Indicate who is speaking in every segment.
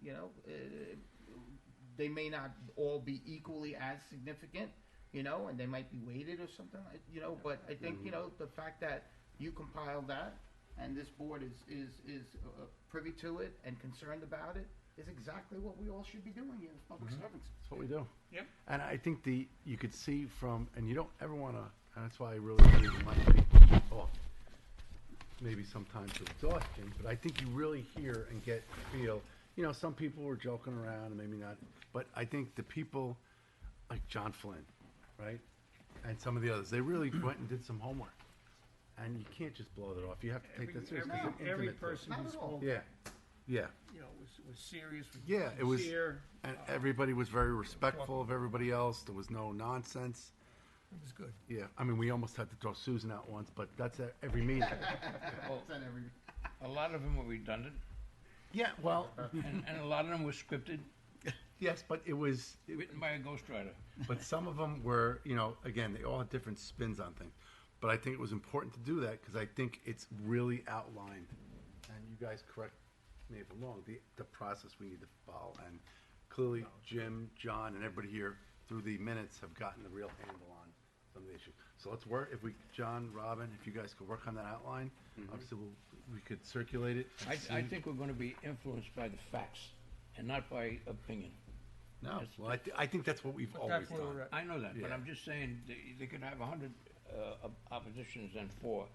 Speaker 1: you know, uh, they may not all be equally as significant, you know, and they might be weighted or something, like- you know, but I think, you know, the fact that you compiled that and this board is, is, is uh, privy to it and concerned about it is exactly what we all should be doing here as public servants.
Speaker 2: Mm-hmm. That's what we do.
Speaker 3: Yep.
Speaker 2: And I think the, you could see from, and you don't ever want to, and that's why I really try to remind people off, maybe sometimes to exhaustion, but I think you really hear and get a feel. You know, some people were joking around and maybe not, but I think the people like John Flynn, right? And some of the others, they really went and did some homework. And you can't just blow that off. You have to take
Speaker 3: Every,
Speaker 2: that seriously. 'cause it's
Speaker 3: every, every
Speaker 2: intimate to us.
Speaker 3: person
Speaker 1: Not
Speaker 3: who
Speaker 1: at all.
Speaker 3: spoke,
Speaker 2: Yeah, yeah.
Speaker 3: you know, was, was serious. was
Speaker 2: Yeah, it was-
Speaker 3: sincere.
Speaker 2: And everybody was very respectful of everybody else. There was no nonsense.
Speaker 4: It was good.
Speaker 2: Yeah, I mean, we almost had to throw Susan out once, but that's at every meeting.
Speaker 1: It's on every-
Speaker 5: A lot of them were redundant,
Speaker 2: yeah, well,
Speaker 5: and, and a lot of them were scripted,
Speaker 2: yes, but it was,
Speaker 5: written by a ghostwriter.
Speaker 2: but some of them were, you know, again, they all had different spins on things. But I think it was important to do that because I think it's really outlined, and you guys correct me if I'm wrong, the, the process we need to follow. And clearly, Jim, John, and everybody here through the minutes have gotten a real handle on some of the issues. So let's work, if we, John, Robin, if you guys could work on that outline,
Speaker 4: Mm-hmm.
Speaker 2: obviously we'll, we could circulate it. and
Speaker 5: I, I
Speaker 2: see-
Speaker 5: think we're gonna be influenced by the facts and not by opinion.
Speaker 2: No, well, I, thi- I think that's what we've
Speaker 4: But
Speaker 2: always
Speaker 4: that's where we're
Speaker 2: done.
Speaker 4: at.
Speaker 5: I know that, but
Speaker 2: Yeah.
Speaker 5: I'm just saying, they, they could have a hundred, uh, op- oppositions and four.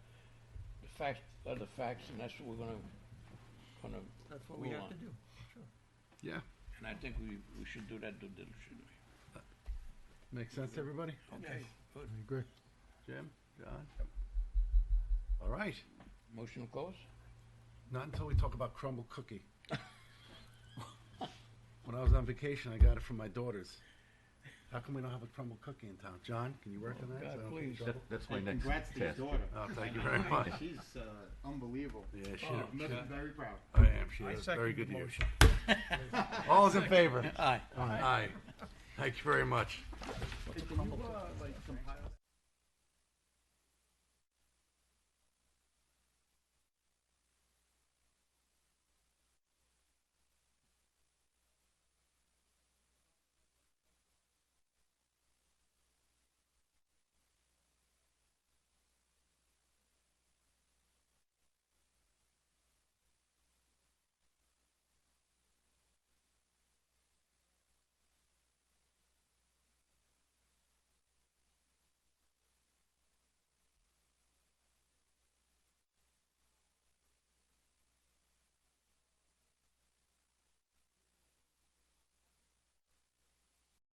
Speaker 5: The facts are the facts, and that's what we're gonna, gonna
Speaker 4: That's what we
Speaker 5: rule
Speaker 4: have to
Speaker 5: on.
Speaker 4: do. Sure.
Speaker 2: Yeah,
Speaker 5: And I think we, we should do that due diligently.
Speaker 2: makes sense, everybody?
Speaker 5: Okay, good.
Speaker 2: I agree. Jim, John? All right,
Speaker 5: Motion to close?
Speaker 2: not until we talk about crumble cookie. When I was on vacation, I got it from my daughters. How come we don't have a crumble cookie in town? John, can you work on that? so I
Speaker 5: God,
Speaker 2: don't get in
Speaker 5: please.
Speaker 2: trouble?
Speaker 6: That's my
Speaker 1: And
Speaker 6: next
Speaker 1: congrats to his
Speaker 6: task.
Speaker 1: daughter.
Speaker 2: Oh, thank you very much.
Speaker 1: She's uh, unbelievable.
Speaker 2: Yeah, she,
Speaker 1: Oh, I'm very proud.
Speaker 2: I am, she
Speaker 4: I
Speaker 2: is
Speaker 4: second
Speaker 2: very
Speaker 4: the
Speaker 2: good to you.
Speaker 4: motion.
Speaker 2: All's in favor?
Speaker 5: Aye.
Speaker 2: Aye. Thank you very much.
Speaker 1: Hey, Can you, uh, like, compile